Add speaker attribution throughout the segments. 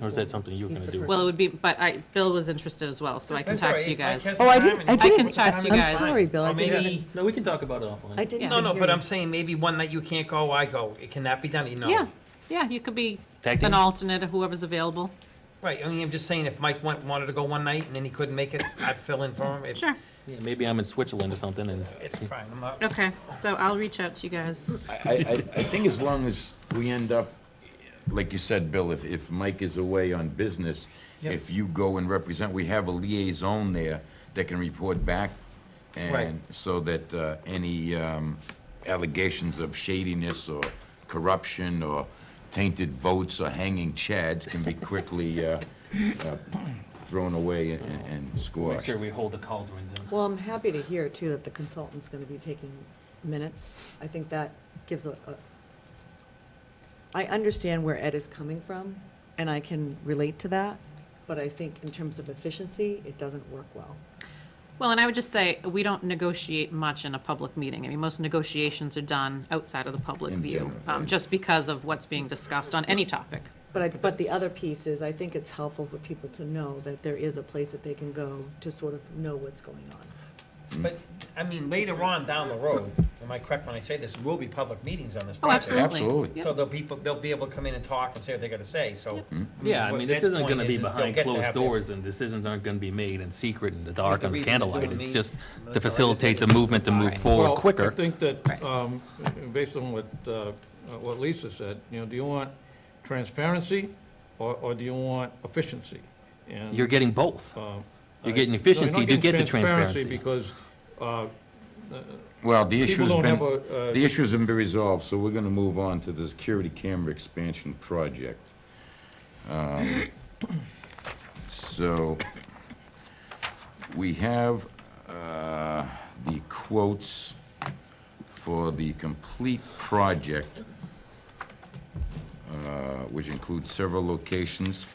Speaker 1: Or is that something you're
Speaker 2: He's
Speaker 1: going to
Speaker 2: the
Speaker 1: do?
Speaker 3: Well, it would be, but I, Bill was interested as well, so I can
Speaker 4: That's
Speaker 3: talk
Speaker 4: all
Speaker 3: to you
Speaker 4: right. I
Speaker 3: guys.
Speaker 4: guess
Speaker 2: Oh, I
Speaker 4: time
Speaker 2: didn't,
Speaker 4: and-
Speaker 2: I
Speaker 3: can
Speaker 2: didn't.
Speaker 3: talk to you
Speaker 2: I'm
Speaker 3: guys.
Speaker 2: sorry, Bill, I
Speaker 4: Or
Speaker 2: didn't,
Speaker 4: maybe-
Speaker 1: No, we can talk about it offline.
Speaker 2: I didn't.
Speaker 4: No, no,
Speaker 2: hear
Speaker 4: but
Speaker 2: you.
Speaker 4: I'm saying maybe one that you can't go, I go. It cannot be done, you know.
Speaker 3: Yeah, yeah, you could be
Speaker 1: Tag
Speaker 3: an
Speaker 1: team?
Speaker 3: alternate or whoever's available.
Speaker 4: Right, I mean, I'm just saying if Mike went, wanted to go one night and then he couldn't make it, I'd fill in for him. It-
Speaker 3: Sure,
Speaker 1: Yeah, Maybe I'm in Switzerland or something and
Speaker 4: It's fine, I'm not,
Speaker 3: okay, so I'll reach out to you guys.
Speaker 5: I, I, I think as long as we end up, like you said, Bill, if, if Mike is away on business,
Speaker 4: Yep.
Speaker 5: if you go and represent, we have a liaison there that can report back.
Speaker 4: Right.
Speaker 5: And so that, uh, any, um, allegations of shadiness or corruption or tainted votes or hanging chads can be quickly, uh, uh, thrown away and, and
Speaker 1: make
Speaker 5: squashed.
Speaker 1: sure we hold the cauldrons in.
Speaker 2: Well, I'm happy to hear too that the consultant's gonna be taking minutes. I think that gives a, a- I understand where Ed is coming from, and I can relate to that, but I think in terms of efficiency, it doesn't work well.
Speaker 3: Well, and I would just say, we don't negotiate much in a public meeting. I mean, most negotiations are done outside of the public
Speaker 5: In
Speaker 3: view,
Speaker 5: general,
Speaker 3: um,
Speaker 5: right.
Speaker 3: just because of what's being discussed on any topic.
Speaker 2: But I, but the other piece is, I think it's helpful for people to know that there is a place that they can go to sort of know what's going on.
Speaker 4: but, I mean, later on down the road, am I correct when I say this, will be public meetings on this
Speaker 3: Oh,
Speaker 4: project.
Speaker 3: absolutely.
Speaker 5: Absolutely.
Speaker 3: Yep.
Speaker 4: So they'll people, they'll be able to come in and talk and say what they gotta say, so.
Speaker 1: Yeah, I
Speaker 4: what
Speaker 1: mean, this
Speaker 4: Ed's
Speaker 1: isn't
Speaker 4: point
Speaker 1: going to
Speaker 4: is,
Speaker 1: be
Speaker 4: is they'll
Speaker 1: behind
Speaker 4: get to
Speaker 1: closed
Speaker 4: have their-
Speaker 1: doors and decisions aren't going to be made in secret in the
Speaker 4: But
Speaker 1: dark
Speaker 4: the
Speaker 1: under
Speaker 4: reason they're
Speaker 1: candlelight.
Speaker 4: doing
Speaker 1: It's
Speaker 4: me-
Speaker 1: just
Speaker 4: Well,
Speaker 1: to
Speaker 4: that's what I just
Speaker 1: facilitate the
Speaker 4: said.
Speaker 1: movement to move
Speaker 3: Right.
Speaker 1: forward
Speaker 6: Well, I
Speaker 1: quicker.
Speaker 6: think
Speaker 3: Right.
Speaker 6: that, um, based on what, uh, uh, what Lisa said, you know, do you want transparency or, or do you want efficiency? And,
Speaker 1: You're getting both.
Speaker 6: um,
Speaker 1: You're
Speaker 6: I-
Speaker 1: getting
Speaker 6: no,
Speaker 1: efficiency
Speaker 6: not
Speaker 1: to get the
Speaker 6: getting
Speaker 1: transparency.
Speaker 6: Because, uh,
Speaker 5: Well, the issue
Speaker 6: people
Speaker 5: has
Speaker 6: don't
Speaker 5: been.
Speaker 6: have a, uh,
Speaker 5: The issue's been resolved, so we're gonna move on to the security camera expansion project. Um, So, we have, uh, the quotes for the complete project, uh, which includes several locations.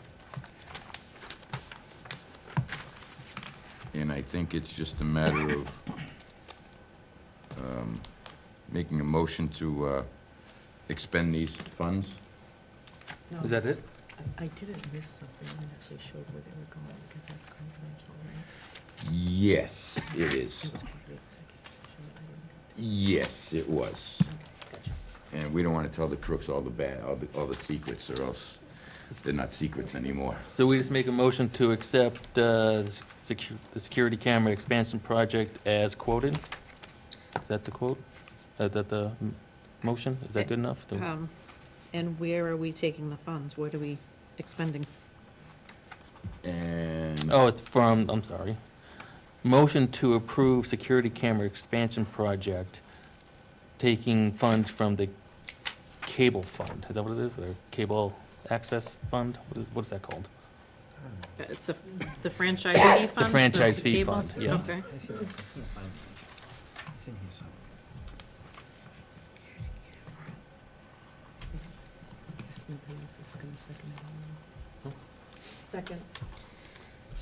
Speaker 5: And I think it's just a matter of making a motion to uh, expend these funds.
Speaker 2: No,
Speaker 1: Is that it?
Speaker 2: I I didn't miss something that actually showed where they were going, because that's confidential, right?
Speaker 5: Yes, it is.
Speaker 2: It was part of the executive session, but I didn't
Speaker 5: Yes, it was.
Speaker 2: go. Okay,
Speaker 5: And we don't want to tell the crooks all the bad, all the, all the secrets, or else they're not secrets anymore.
Speaker 1: So we just make a motion to accept uh, the secu- the security camera expansion project as quoted? Is that the quote? Is that the mm, motion? Is that good enough? Do-
Speaker 3: Um, And where are we taking the funds? What are we expending?
Speaker 5: And
Speaker 1: Oh, it's from, I'm sorry. Motion to approve security camera expansion project, taking funds from the cable fund. Is that what it is? The cable access fund? What is, what is that called?
Speaker 3: Uh, The the franchise fee fund?
Speaker 1: franchise fee
Speaker 3: cable?
Speaker 1: fund, yes.
Speaker 3: Okay.
Speaker 4: I should- I can't find it. It's in here somewhere.
Speaker 2: gotcha. Nobody else is gonna second it, I don't know. Second,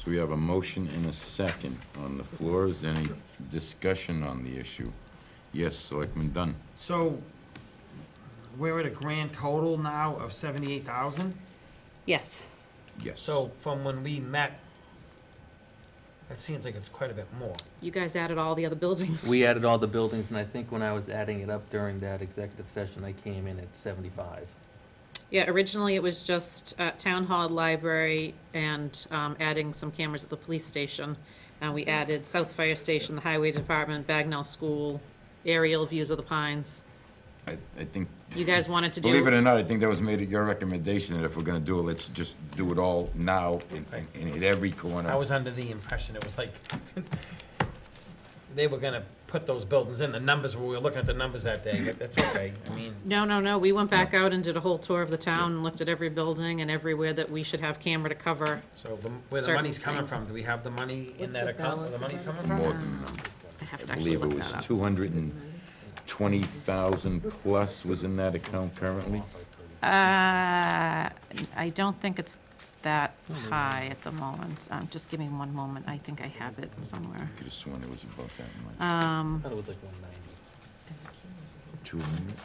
Speaker 5: so we have a motion and a second on the floor. Is there any discussion on the issue? Yes, Selectman Dunn.
Speaker 4: So, we're at a grand total now of seventy-eight thousand?
Speaker 3: Yes,
Speaker 5: Yes.
Speaker 4: So from when we met, it seems like it's quite a bit more.
Speaker 3: you guys added all the other buildings.
Speaker 1: We added all the buildings, and I think when I was adding it up during that executive session, I came in at seventy-five.
Speaker 3: Yeah, originally it was just uh, town hall, library, and um, adding some cameras at the police station. And we added South Fire Station, the highway department, Bagnell School, aerial views of the pines.
Speaker 5: I, I think,
Speaker 3: You guys wanted to do.
Speaker 5: believe it or not, I think that was made at your recommendation, that if we're gonna do it, let's just do it all now and, and hit every corner.
Speaker 4: I was under the impression it was like, they were gonna put those buildings in, the numbers, we were looking at the numbers that day, but that's okay, I mean,
Speaker 3: No, no, no, we went back out and did a whole tour of the town, and looked at every building and everywhere that we should have camera to cover.
Speaker 4: so the- where the
Speaker 3: Certain
Speaker 4: money's coming
Speaker 3: things.
Speaker 4: from, do we have the money in
Speaker 2: What's
Speaker 4: that
Speaker 2: the
Speaker 4: account, where the
Speaker 2: balance
Speaker 4: money's
Speaker 2: of
Speaker 4: coming
Speaker 2: that?
Speaker 4: from?
Speaker 5: More than enough.
Speaker 3: I Um, have to
Speaker 5: mm, I
Speaker 3: actually
Speaker 5: believe it
Speaker 3: look
Speaker 5: was
Speaker 3: that up.
Speaker 5: two hundred and twenty thousand plus was in that account currently.
Speaker 3: Uh, I don't think it's
Speaker 5: Oh,
Speaker 3: that high at the moment. Um, Just give me one moment, I think I have it somewhere.
Speaker 5: Could have sworn it was about that much.
Speaker 3: Um,
Speaker 1: I thought it was like one ninety.
Speaker 5: Two hundred?